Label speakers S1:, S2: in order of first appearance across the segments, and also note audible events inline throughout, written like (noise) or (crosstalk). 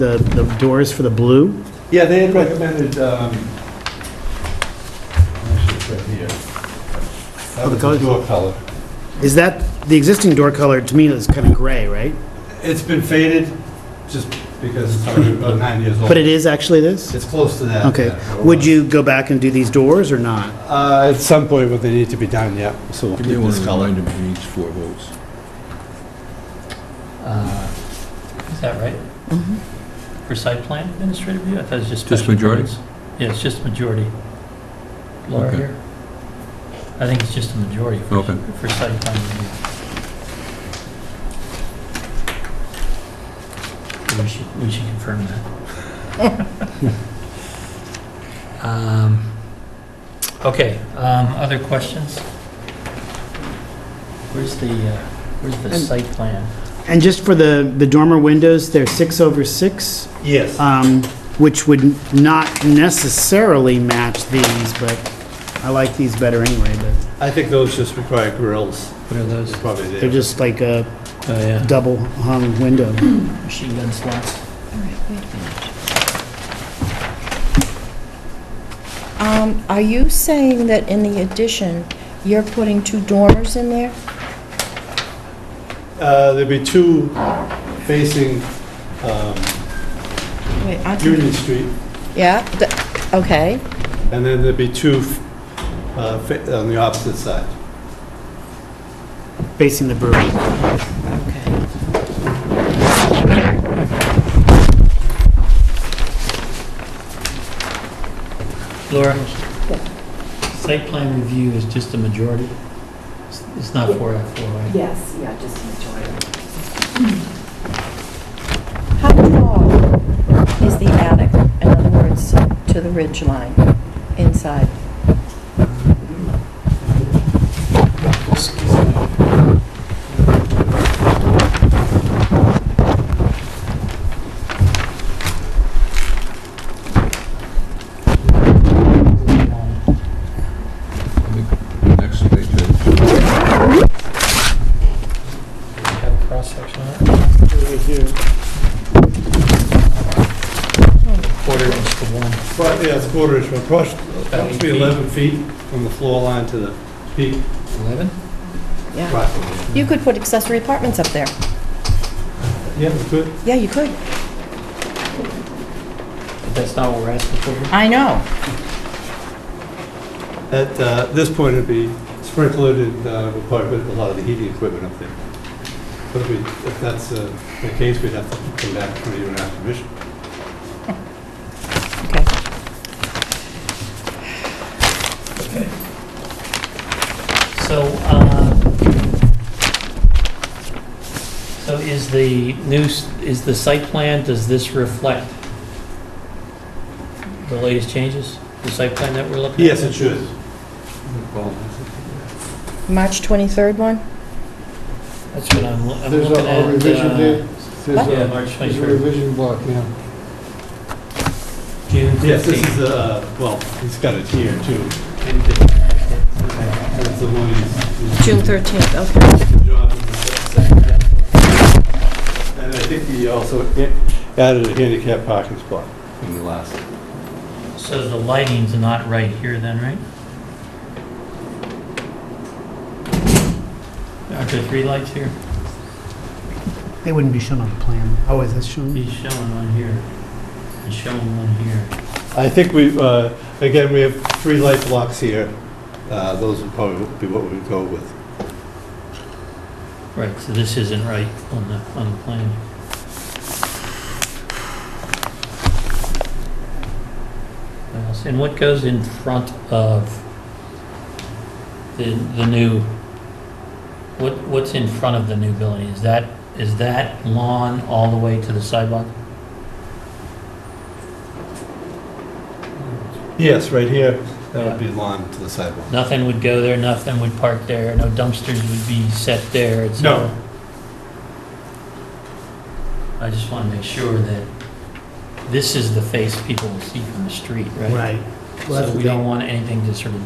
S1: the, the doors for the blue.
S2: Yeah, they had recommended, um, actually, it's right here.
S1: Oh,
S2: That
S1: the
S2: was
S1: colors?
S2: Door color.
S1: Is that, the existing door color to me is kind of gray, right?
S2: It's been faded, just because it's already
S1: (laughs)
S2: about nine years old.
S1: But it is actually this?
S2: It's close to that.
S1: Okay.
S2: yeah.
S1: Would you go back and do these doors or not?
S2: Uh, at some point, what they need to be done, yeah, so we'll
S3: You
S2: keep
S3: may want
S2: this
S3: to
S2: color.
S3: remind him he needs four votes.
S4: Uh, Is that right? For site plan administrative review? I thought it was just
S3: Mm-hmm. Just
S4: special
S3: majority?
S4: permits. Yeah, it's just majority. Laura
S3: Okay.
S4: here? I think it's just a majority for,
S3: Okay.
S4: for site plan review. We should, we should confirm that.
S3: (laughs)
S4: Um, Okay, um, other questions? Where's the, uh, where's the
S1: And-
S4: site plan?
S1: And just for the, the dormer windows, they're six over six,
S2: Yes.
S1: um, which would not necessarily match these, but I like these better anyway, but
S2: I think those just require grills,
S4: What are those?
S2: is probably the-
S1: they're just like a
S4: Oh, yeah.
S1: double hung window.
S4: Machine gun slots.
S5: Um, Are you saying that in the addition, you're putting two dormers in there?
S2: Uh, there'd be two facing, um,
S5: Wait, I can-
S2: Union Street,
S5: Yeah, th- okay.
S2: and then there'd be two, uh, fa- on the opposite side.
S1: facing the brewery.
S5: Okay.
S4: Laura? Site plan review is just a majority? It's- It's not four out of four, right?
S6: Yes, yeah, just majority.
S5: How tall is the attic, in other words, to the ridge line inside?
S3: I think Next page, Ed.
S4: Have a cross-section on it? Quarter inch to one.
S2: But, yeah, it's quarter inch, but across, that would be 11 feet from the floor line to the peak,
S4: Eleven?
S5: Yeah.
S2: approximately.
S5: You could put accessory apartments up there.
S2: Yeah, we could.
S5: Yeah, you could.
S4: But that's not what we're asking for.
S5: I know.
S2: At uh, this point, it'd be sprinkled and uh, we'll probably put a lot of the heating equipment up there. But if we, if that's uh, the case, we'd have to come back for you and ask permission.
S5: Okay.
S4: So, uh, so is the new, s- is the site plan, does this reflect the latest changes? The site plan that we're looking at?
S2: Yes, it should.
S5: March 23rd one?
S4: That's what I'm, lo- I'm
S7: There's a-
S4: looking at.
S7: a revision
S4: uh,
S7: there. There's
S4: Yeah,
S7: a,
S4: March
S7: there's a
S4: 23rd,
S7: revision block, yeah.
S4: June
S2: Yes, this
S4: 15th.
S2: is, uh, well, he's got it here too. That's the one he's-
S5: June 13th, okay.
S2: he's- John, And I think he also added a handicap parking spot in the last.
S4: So the lighting's not right here then, right? Aren't there three lights here?
S1: They wouldn't be shown on the plan. Oh, is that shown?
S4: He's showing one here, and showing one here.
S2: I think we, uh, again, we have three light blocks here. Uh, Those would probably be what we'd go with.
S4: Right, so this isn't right on the, on the plan. What else? And what goes in front of the, the new, what, what's in front of the new building? Is that, is that lawn all the way to the sidewalk?
S2: Yes, right here, that would be lawn to the sidewalk.
S4: Nothing would go there, nothing would park there, no dumpsters would be set there, et
S2: No.
S4: cetera? I just want to make sure that this is the face people will see from the street, right?
S1: Right. Well, that's
S4: So
S1: the
S4: we don't
S1: thing.
S4: want anything to sort of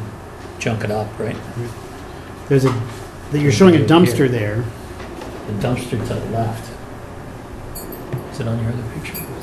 S4: junk it up, right?
S1: There's a, that you're showing a dumpster there.
S4: The dumpster to the left. Is it on your other picture?